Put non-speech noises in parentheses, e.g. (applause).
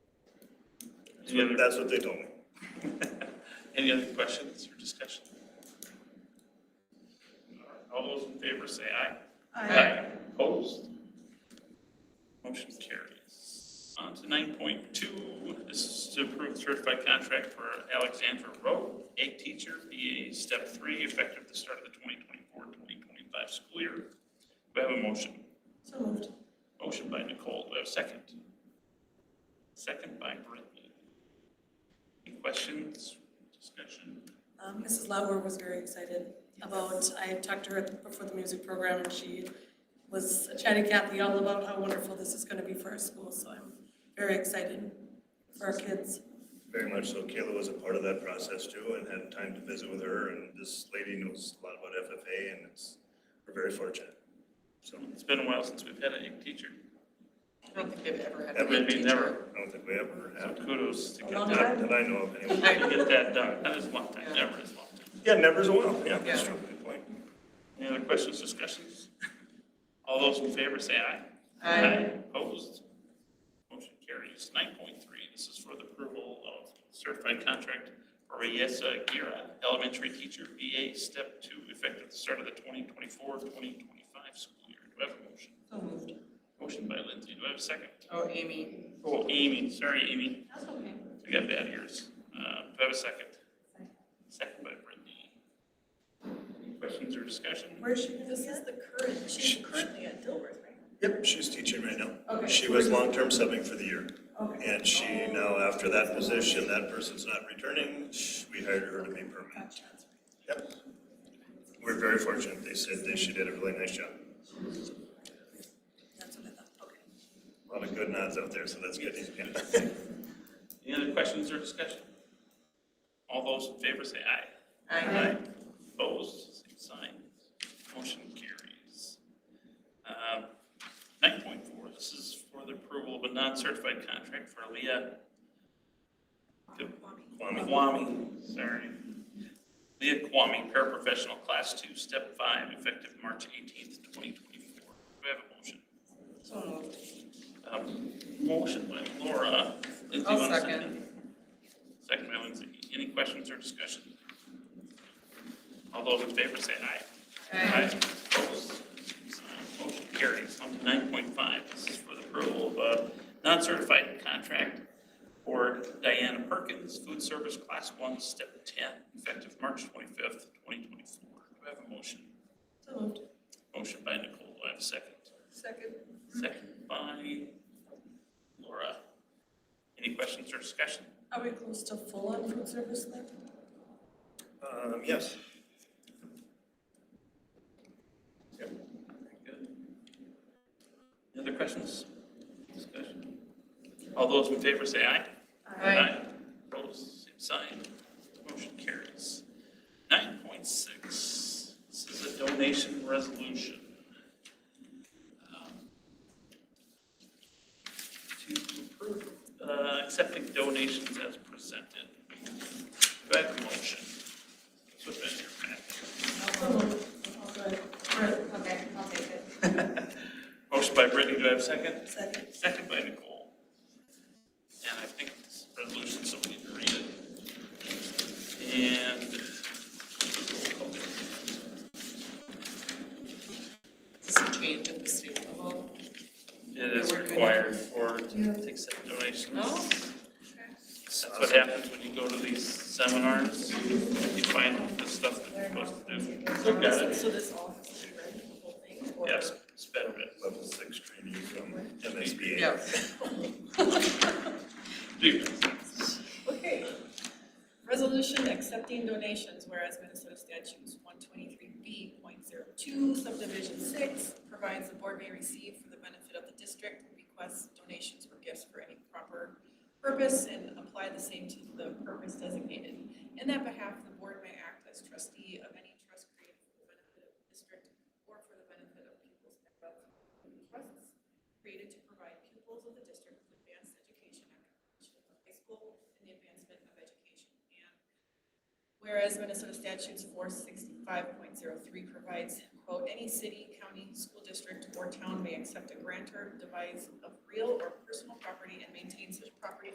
Any other- That's what they told me. (laughs) Any other questions or discussion? All those in favor say aye. Opposed? Motion carries. On to nine point two, this is to approve certified contract for Alexandra Rowe, egg teacher, BA step three, effective the start of the 2024-2025 school year. Do I have a motion? So moved. Motion by Nicole, do I have a second? Second by Brittany. Any questions, discussion? Um, Mrs. Lauer was very excited about, I had talked to her before the music program and she was chatting Kathy all about how wonderful this is gonna be for our school, so I'm very excited for our kids. Very much so. Kayla was a part of that process too and had time to visit with her and this lady knows a lot about FFA and it's, we're very fortunate. So It's been a while since we've had an egg teacher. I don't think they've ever had a Ever, head Maybe teacher. never, I don't think we ever so have, kudos to get Long that, not that I know of anyway. to get that done. That is a long time, never is a long time. Yeah, never's a while. Yeah, that's Yeah. true. Good point. Any other questions, discussions? All those in favor say aye. Aye. Opposed? Motion carries. Nine point three, this is for the approval of certified contract for Reyesa Gira, elementary teacher, VA, step two, effective the start of the 2024-2025 school year. Do I have a motion? So moved. Motion by Lindsay, do I have a second? Oh, Amy. Oh, Amy, sorry, Amy. That's okay. I got bad ears. Uh, Do I have a second? Second by Brittany. Any questions or discussion? Where is she gonna be at? the current, she's currently at Dilworth, right? Yep, she's teaching right now. Okay. She was long-term subbing for the year. Okay. And she, now after that position, that person's not returning, sh- we hired her to be permanent. Gotcha, that's right. Yep. We're very fortunate. They said that she did a really nice job. That's what I thought, okay. A lot of good nods out there, so that's good. Any other questions or discussion? All those in favor say aye. Aye. Opposed, same sign. Motion carries. Um, Nine point four, this is for the approval of a non-certified contract for Leah. Kwame. Kwame, sorry. Leah Kwame, paraprofessional, class two, step five, effective March eighteenth, twenty twenty-four. Do I have a motion? So moved. Um, Motion by Laura. Lindsay, I'll want a second. Second by Lindsay. Any questions or discussion? All those in favor say aye. Opposed? Motion carries. On to nine point five, this is for the approval of a non-certified contract for Diana Perkins, food service class one, step ten, effective March twenty-fifth, twenty twenty-four. Do I have a motion? So moved. Motion by Nicole. Do I have a second? Second. Second by Laura. Any questions or discussion? Are we close to full on food service then? Um, yes. Good. Any other questions? Discussion? All those in favor say aye. Aye. Opposed, same sign. Motion carries. Nine point six, this is a donation resolution. um, To approve, uh, accepting donations as presented. Do I have a motion? Put that in your packet. So moved. All good. Right. Okay, I'll take it. Motion by Brittany, do I have a second? Second. Second by Nicole. And I think this resolution, so we need to read it. And. This is a change at the state level. It is required for, to accept donations. Oh. That's what happens when you go to these seminars, you find out the stuff that you're supposed to do. So Look at this, it, so this all has to be read, the whole thing? or- yes, it's better, but Level six training from MSBA. Yeah. do. Okay. Resolution accepting donations, whereas Minnesota statutes one twenty-three B point zero two subdivision six provides the board may receive for the benefit of the district requests donations or gifts for any proper purpose and apply the same to the purpose designated. In that behalf, the board may act as trustee of any trust created for the benefit of the district or for the benefit of pupils and trusts created to provide pupils of the district with advanced education at completion of high school and the advancement of education. And whereas Minnesota statutes four sixty-five point zero three provides, quote, any city, county, school district, or town may accept a grant or devise of real or personal property and maintain such property